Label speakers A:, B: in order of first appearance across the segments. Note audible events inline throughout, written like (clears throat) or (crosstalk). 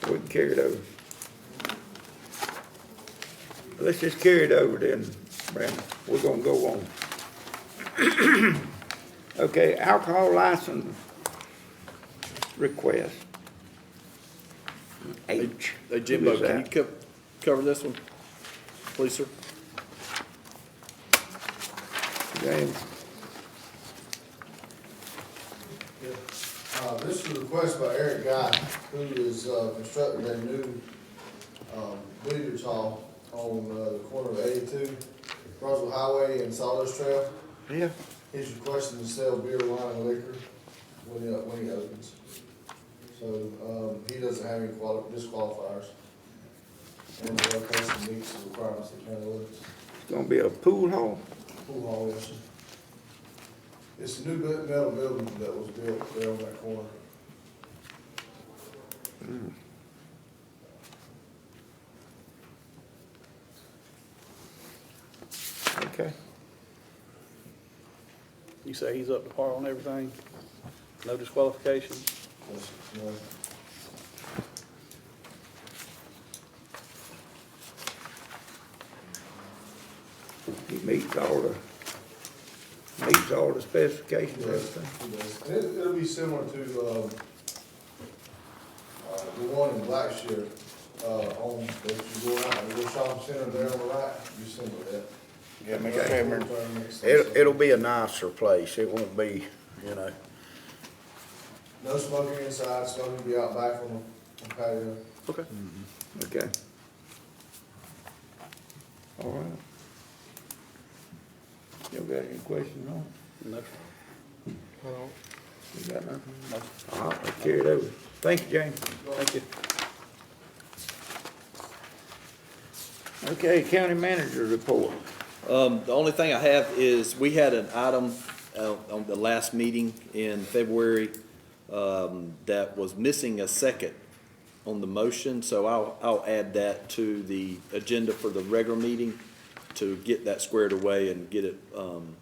A: can carry it over. Let's just carry it over then, Brandon. We're gonna go on. (clears throat) Okay, alcohol license request. H.
B: Hey
A: Who
B: Jimbo,
A: is
B: can you
A: that?
B: co- cover this one, please, sir?
A: James,
C: Uh, This is a request by Eric Guy, who is uh, constructing a new um, bleachers hall on uh, the corner of eighty-two, Roswell Highway and Sawdust Trail.
A: yeah,
C: He's requesting to sell beer, wine, and liquor when he, when he opens. So um, he doesn't have any quali- disqualifiers. And the location meets the requirements of the county limits.
A: it's gonna be a pool hall.
C: Pool hall, yes, sir. It's a new bu- metal building that was built there on that corner.
A: Okay,
B: You say he's up to par on everything? No disqualification?
C: Yes, no.
A: he meets all the, meets all the specifications, and
C: Yes,
A: everything.
C: it does. It, it'll be similar to, um, uh, the one in Blackshear, uh, on, that you go out, the little shopping center there on the right, you similar to that.
D: Yeah, Mr.
C: Okay.
D: Chairman, it'll, it'll be a nicer place, it won't be, you know,
C: No smoking inside, smoking be out back on the on the patio.
B: Okay.
A: okay. All right. You got any questions on?
B: No, sir.
A: it? You got nothing?
B: No.
A: All right, I'll carry it over. Thank you, James.
B: Thank you.
A: Okay, county manager report.
E: Um, the only thing I have is, we had an item, uh, on the last meeting in February, um, that was missing a second on the motion, so I'll, I'll add that to the agenda for the regular meeting to get that squared away and get it, um,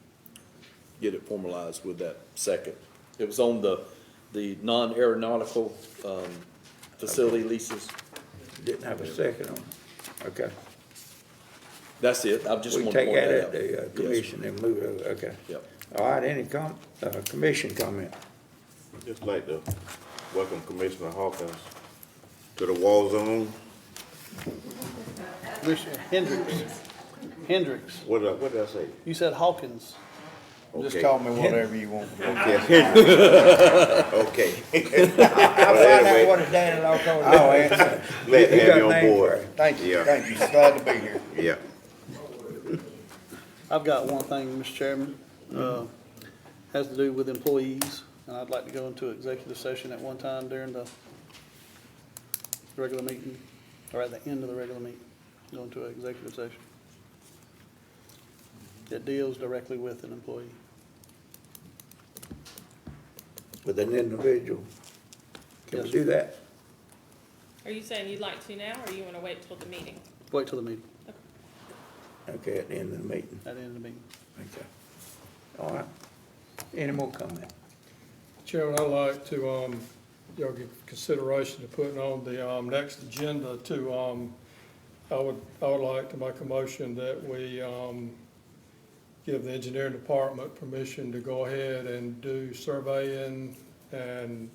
E: get it formalized with that second. It was on the, the non-aeronautical, um, facility leases.
A: Didn't have a second on it. Okay.
E: That's it, I just
A: We
E: wanted to
A: take
E: point
A: that
E: that
A: at
E: out.
A: the uh,
E: Yes.
A: commission and move it over, okay.
E: Yep.
A: All right, any com, uh, commission comment?
F: Just like to welcome Commissioner Hawkins to the war zone.
B: Commissioner Hendricks, Hendricks,
F: What did I, what did I say?
B: you said Hawkins.
D: just
F: Okay.
D: call me whatever you want.
F: Okay. Okay.
A: I'll find out what a Dan Law
D: I'll answer,
F: Glad to
A: You
F: have
A: got
F: you on
A: name
F: board.
D: thank you,
F: Yeah.
D: thank you, glad to be here.
F: Yeah.
B: I've got one thing, Mr. Chairman, uh, has to do with employees, and I'd like to go into executive session at one time during the regular meeting, or at the end of the regular meeting, go into an executive session. It deals directly with an employee.
A: With an individual. Can we
B: Yes.
A: do that?
G: Are you saying you'd like to now, or you wanna wait till the meeting?
B: Wait till the meeting,
A: Okay, at the end of the meeting,
B: at the end of the meeting.
A: okay. All right. Any more comment?
H: Chairman, I'd like to, um, y'all give consideration to putting on the, um, next agenda to, um, I would, I would like to make a motion that we, um, give the engineering department permission to go ahead and do surveying and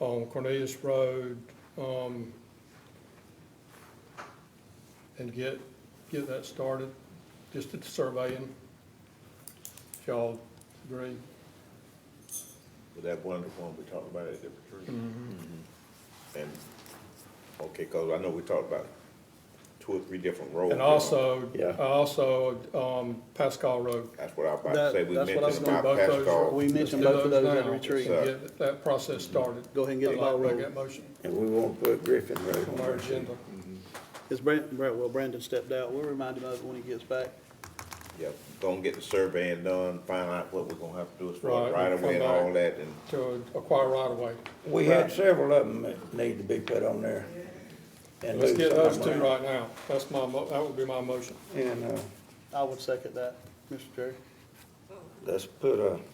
H: on Cornelius Road, um, and get, get that started, just the surveying. If Y'all agree?
F: Was that one, the one we talked about at the retreat? Mm-hmm. And, okay, cause I know we talked about two or three different roads.
H: And also,
A: Yeah.
H: also, um, Pascal Road.
F: That's what I was about to
B: That-
F: say. We
B: that's what I was
F: mentioned
B: gonna
F: about
H: both those
F: Pascal.
B: We mentioned
H: Let's do
B: both of those at
H: now
B: the retreat.
H: and Get that process started.
B: Go ahead and get the
H: I'd like
B: ball
H: to make
B: rolling.
H: that motion
A: And we won't put Griffin Road
H: on
A: on
H: our
A: our
H: agenda.
B: It's Brandon, well, Brandon stepped out, we'll remind him of it when he gets back.
F: Yeah, gonna get the surveying done, find out what we're gonna have to do as far as
H: Right,
F: right
H: and
F: away and
H: come
F: all
H: back.
F: that and.
H: To acquire right of way.
A: We had several of them that need to be put on there. and
H: Let's
A: lose
H: get
A: some of
H: those two
A: them.
H: right now. That's my mo, that would be my motion.
A: And, uh,
B: I would second that, Mr. Jerry.
A: let's put a